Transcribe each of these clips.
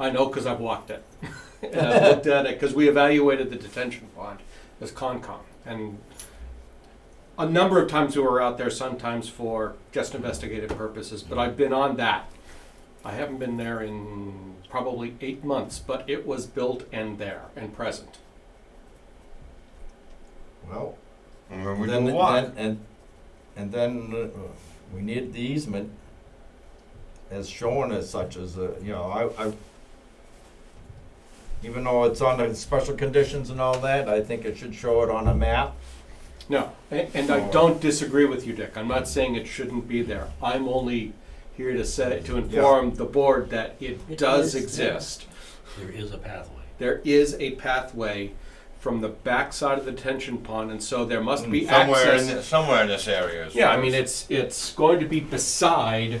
I know because I've walked it. and I've looked at it because we evaluated the detention pond as Concom. And a number of times we were out there, sometimes for just investigative purposes, but I've been on that. I haven't been there in probably eight months, but it was built and there and present. Well, And then we then, do what? then- and and then uh, we need the easement as shown as such as uh, you know I, I even though it's on the special conditions and all that I think it should show it on a map. No, and, and I don't disagree with you, Dick. I'm not saying it shouldn't be there. I'm only here to say, to inform the board that it It does is there. exist. There is a pathway. There is a pathway from the backside of the detention pond, and so there must be Hmm, somewhere access. in th- somewhere in this area. is- Yeah, I mean, it's, it's going to be beside.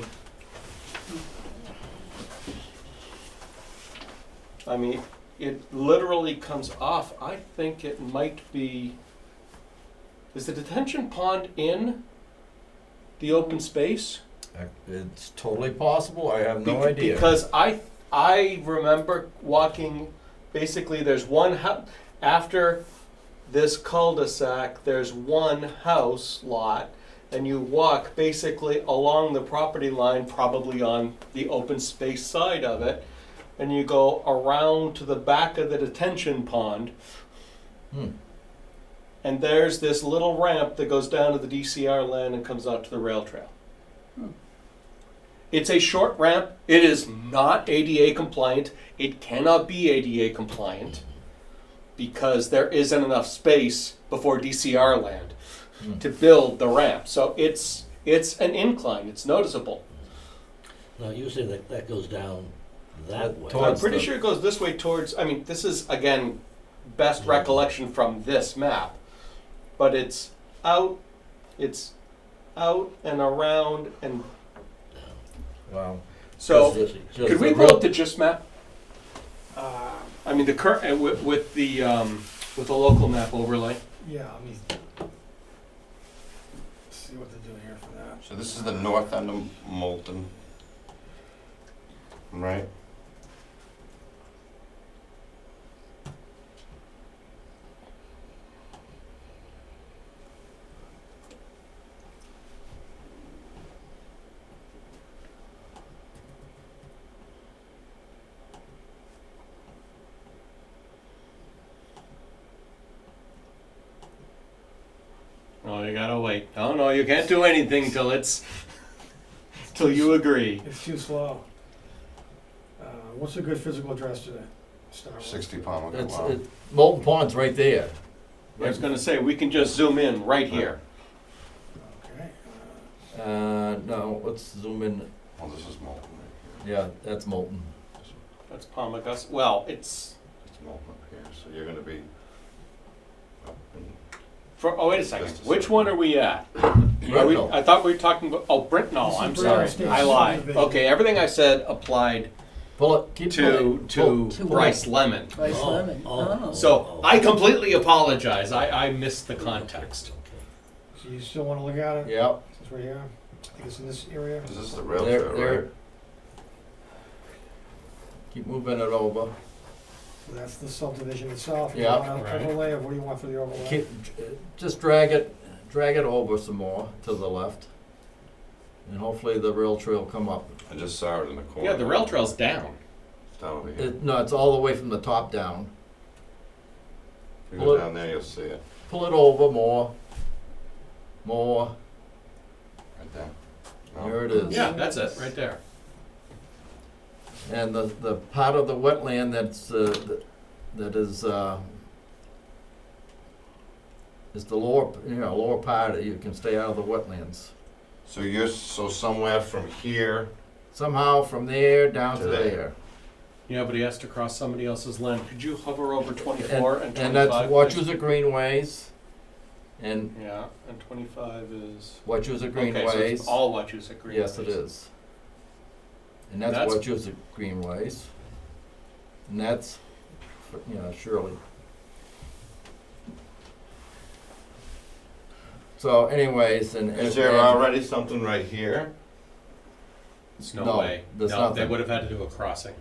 I mean, it literally comes off, I think it might be, is the detention pond in the open space? Uh, It's totally possible. I have no Bec- idea. Because I, I remember walking, basically, there's one house, after this cul-de-sac, there's one house lot, and you walk basically along the property line, probably on the open space side of it, and you go around to the back of the detention pond, Hmm. and there's this little ramp that goes down to the DCR land and comes out to the rail trail. It's a short ramp. It is not ADA compliant. It cannot be ADA compliant because there isn't enough space before DCR land to build the ramp. So it's it's an incline. It's noticeable. Now, usually that, that goes down that way. Towards- I'm pretty the- sure it goes this way towards. I mean, this is again best Yeah. recollection from this map, but it's out. It's out and around and Wow. so. Just- just Could we the pull up road- the GIS map? Uh, I mean, the current, with, with the, um, with the local map overlay. Yeah, let me see what to do here for that. So this is the north end of Moulton, right? No, Oh, you gotta wait. No, no, you can't do anything till it's, till you agree. It's too slow. Uh, what's a good physical address today? Star Wars. Sixty Palmer It's, Oh, Wow. it, Molten Pond's right there. I was gonna say, we can just zoom in right here. Okay. uh, Uh, no, let's zoom in. Well, this is Moulton. right Yeah, that's Molten. here. This- That's Palmagus, well, it's, It's Moulton up here, so you're gonna be. up in- for, oh, wait a second, which one are we at? Are we, Brentnall. I thought we were talking about, oh, Britnall, This is I'm sorry, I Britnall Station lied. subdivision. Okay, everything I said applied Pull it. Keep to, pulling. Oh, to to Bryce Lemon. Bryce Oh, Lemon. oh, oh, So oh. I completely apologize. I, I missed the context. Okay. So you still wanna look at it? Yep. Since we're here, I think it's in this area. Is this the rail There- trail, there- right? Keep moving it over. So That's the subdivision itself. You Yeah, want right. an overlay of what do you want for the overlay? Keep, uh, just drag it, drag it over some more to the left. And hopefully the rail trail come up. I just saw it in the corner. Yeah, the rail trail's down. It's down over here. It, no, it's all the way from the top down. If you go look. down there, you'll see it, Pull it over more, more. right there. No? There it is. Yeah, that's it, right there. And the, the part of the wetland that's, uh, that is, uh, is the lower, you know, lower part, you can stay out of the wetlands. So you're, so somewhere from here, Somehow from there down To to there. there. Yeah, but he has to cross somebody else's land. Could you hover over twenty-four and And that's twenty-five? Wachusett Greenways, and Yeah, and twenty-five is. Wachusett Okay, so it's Greenways. all Wachusett Greenways. Yes, it is. And That's- that's Wachusett Greenways. And that's, you know, Shirley. So anyways, and. is and- there and- already something right here? There's no No, way. there's No, they nothing. would have had to do a crossing.